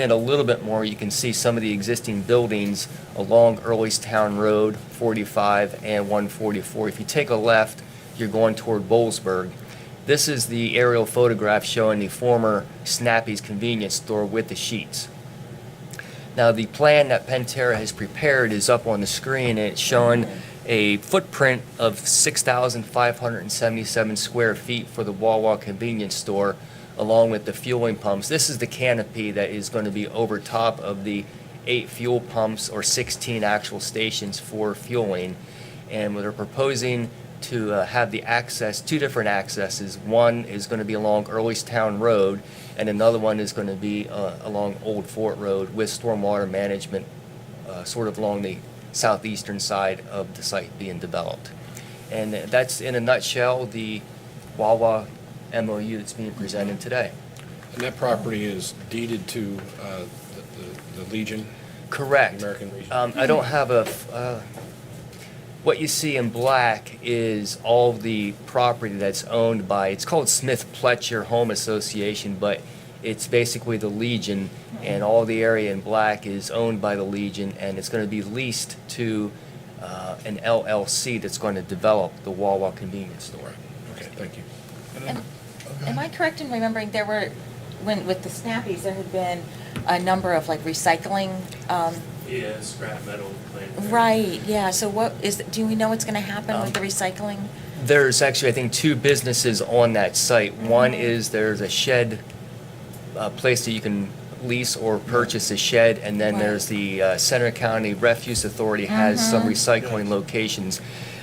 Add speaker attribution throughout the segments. Speaker 1: in a little bit more, you can see some of the existing buildings along Earlestown Road, 45 and 144. If you take a left, you're going toward Bollesburg. This is the aerial photograph showing the former Snappy's convenience store with the sheets. Now, the plan that Pantera has prepared is up on the screen, and it's showing a footprint of 6,577 square feet for the Wawa convenience store, along with the fueling pumps. This is the canopy that is going to be over top of the eight fuel pumps or 16 actual stations for fueling. And they're proposing to uh, have the access, two different accesses. One is going to be along Earlestown Road, and another one is going to be uh, along Old Fort Road with stormwater management, uh, sort of along the southeastern side of the site being developed. And that's, in a nutshell, the Wawa MOU that's being presented today.
Speaker 2: And that property is deeded to uh, the- the the Legion?
Speaker 1: Correct.
Speaker 2: American Legion.
Speaker 1: Um, I don't have a, f- uh, what you see in black is all the property that's owned by, it's called Smith Pletcher Home Association, but it's basically the Legion, and all the area in black is owned by the Legion, and it's gonna be leased to, uh, an LLC that's gonna develop the Wawa convenience store.
Speaker 2: Okay, thank you.
Speaker 3: Am am I correct in remembering there were, when, with the Snappies, there had been a number of like recycling? um,
Speaker 4: Yeah, scrap metal plant.
Speaker 3: Right, yeah, so what is, do we know what's going to happen
Speaker 1: Um,
Speaker 3: with the recycling?
Speaker 1: There's actually, I think, two businesses on that site. One is there's a shed, a place that you can lease or purchase a shed, and then
Speaker 3: Right.
Speaker 1: there's the uh, Center County Refuse Authority has some
Speaker 3: Mm-hmm.
Speaker 1: recycling locations.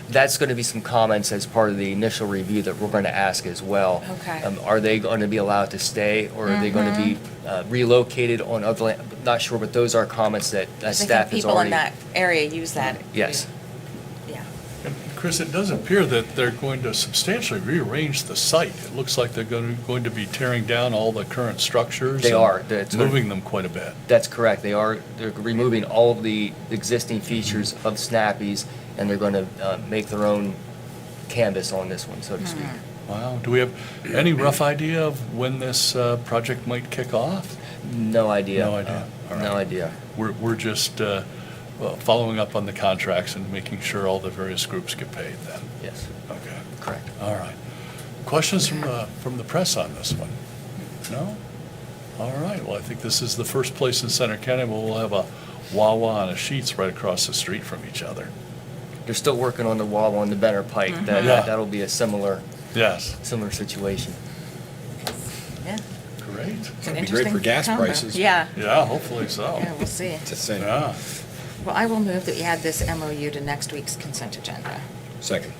Speaker 1: That's going to be some comments as part of the initial review that we're going to ask as well.
Speaker 3: Okay.
Speaker 1: Um, Are they going to be allowed to stay, or are they going to be
Speaker 3: Mm-hmm.
Speaker 1: uh, relocated on other land? Not sure, but those are comments that uh,
Speaker 3: 'Cause I
Speaker 1: staff is
Speaker 3: think people in
Speaker 1: already.
Speaker 3: that area use that.
Speaker 1: Yes.
Speaker 3: Yeah.
Speaker 5: And Chris, it does appear that they're going to substantially rearrange the site. It looks like they're going to, going to be tearing down all the current structures.
Speaker 1: They
Speaker 5: and
Speaker 1: are. That's what-
Speaker 5: Moving them quite a bit.
Speaker 1: That's correct. They are, they're removing all of the existing features of Snappies, and they're going to make their own canvas on this one, so to speak.
Speaker 5: Wow. Do we have any rough idea of when this uh, project might kick off?
Speaker 1: No idea.
Speaker 5: No idea.
Speaker 1: Uh,
Speaker 5: All
Speaker 1: No
Speaker 5: right.
Speaker 1: idea.
Speaker 5: We're, we're just uh, well, following up on the contracts and making sure all the various groups get paid then.
Speaker 1: Yes,
Speaker 5: Okay.
Speaker 1: correct.
Speaker 5: All right. Questions from, uh, from the press on this one? No? All right, well, I think this is the first place in Center County where we'll have a Wawa and a Sheets right across the street from each other.
Speaker 1: They're still working on the wall on the Benner Pike. That,
Speaker 5: Yeah.
Speaker 1: that'll be a similar,
Speaker 5: Yes.
Speaker 1: similar situation.
Speaker 3: Yeah.
Speaker 5: Great.
Speaker 3: It's
Speaker 2: That'd
Speaker 3: an
Speaker 2: be great
Speaker 3: interesting
Speaker 2: for gas
Speaker 3: combo.
Speaker 2: prices.
Speaker 3: Yeah,
Speaker 5: Yeah, hopefully so.
Speaker 3: yeah, we'll see.
Speaker 2: It's the same.
Speaker 5: Yeah.
Speaker 3: Well, I will move that we add this MOU to next week's consent agenda.
Speaker 2: Second.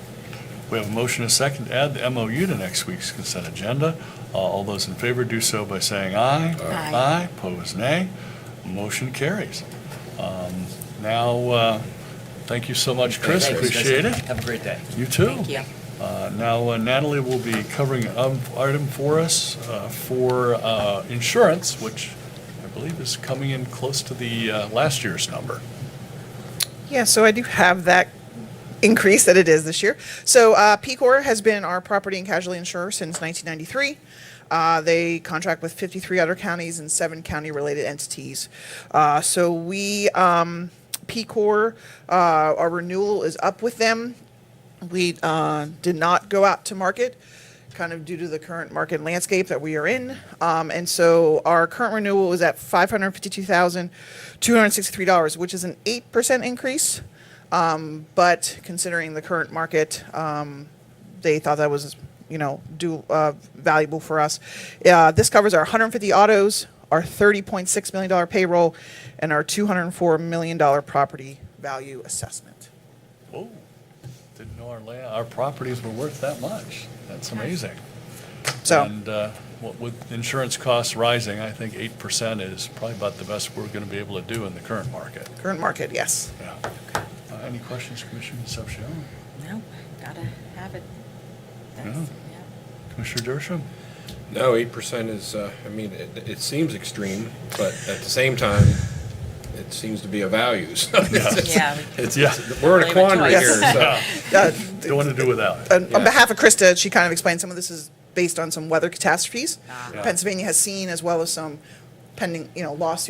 Speaker 5: We have a motion and a second to add the MOU to next week's consent agenda. Uh, All those in favor do so by saying aye.
Speaker 3: Aye.
Speaker 5: Aye, pose nay. Motion carries. Um, Now, uh, thank you so much, Chris,
Speaker 1: Thanks, guys.
Speaker 5: appreciate it.
Speaker 1: Have a great day.
Speaker 5: You too.
Speaker 3: Thank you.
Speaker 5: Uh, Now uh, Natalie will be covering an item for us uh, for uh, insurance, which I believe is coming in close to the uh, last year's number.
Speaker 6: Yeah, so I do have that increase that it is this year. So uh, Pecor has been our property and casualty insurer since 1993. Uh, They contract with 53 other counties and seven county-related entities. Uh, So we, um, Pecor, uh, our renewal is up with them. We uh, did not go out to market, kind of due to the current market landscape that we are in. Um, And so our current renewal is at $552,263, which is an 8% increase. Um, But considering the current market, um, they thought that was, you know, do, uh, valuable for us. Uh, This covers our 150 autos, our $30.6 million payroll, and our $204 million property value assessment.
Speaker 5: Whoa, didn't know our land, our properties were worth that much. That's amazing.
Speaker 6: So.
Speaker 5: And uh, what with insurance costs rising, I think 8% is probably about the best we're going to be able to do in the current market.
Speaker 6: Current market, yes.
Speaker 5: Yeah. Uh, Any questions, Commissioner Concepcion?
Speaker 3: No, gotta have it. That's-
Speaker 2: Oh.
Speaker 5: Yeah.
Speaker 3: yeah.
Speaker 5: Commissioner Dershowitz?
Speaker 2: No, eight percent is, uh, I mean, it, it seems extreme, but at the same time, it seems to be a value, so. it's-
Speaker 3: Yeah.
Speaker 2: It's,
Speaker 5: Yeah.
Speaker 2: it's- we're in a
Speaker 3: Really much
Speaker 2: quandary
Speaker 3: choice.
Speaker 2: here, so.
Speaker 6: Uh,
Speaker 5: Don't want to do without it.
Speaker 6: on on
Speaker 2: Yeah.
Speaker 6: behalf of Krista, she kind of explained some of this is based on some weather catastrophes.
Speaker 5: Yeah.
Speaker 6: Pennsylvania has seen as well as some pending, you know, lawsuits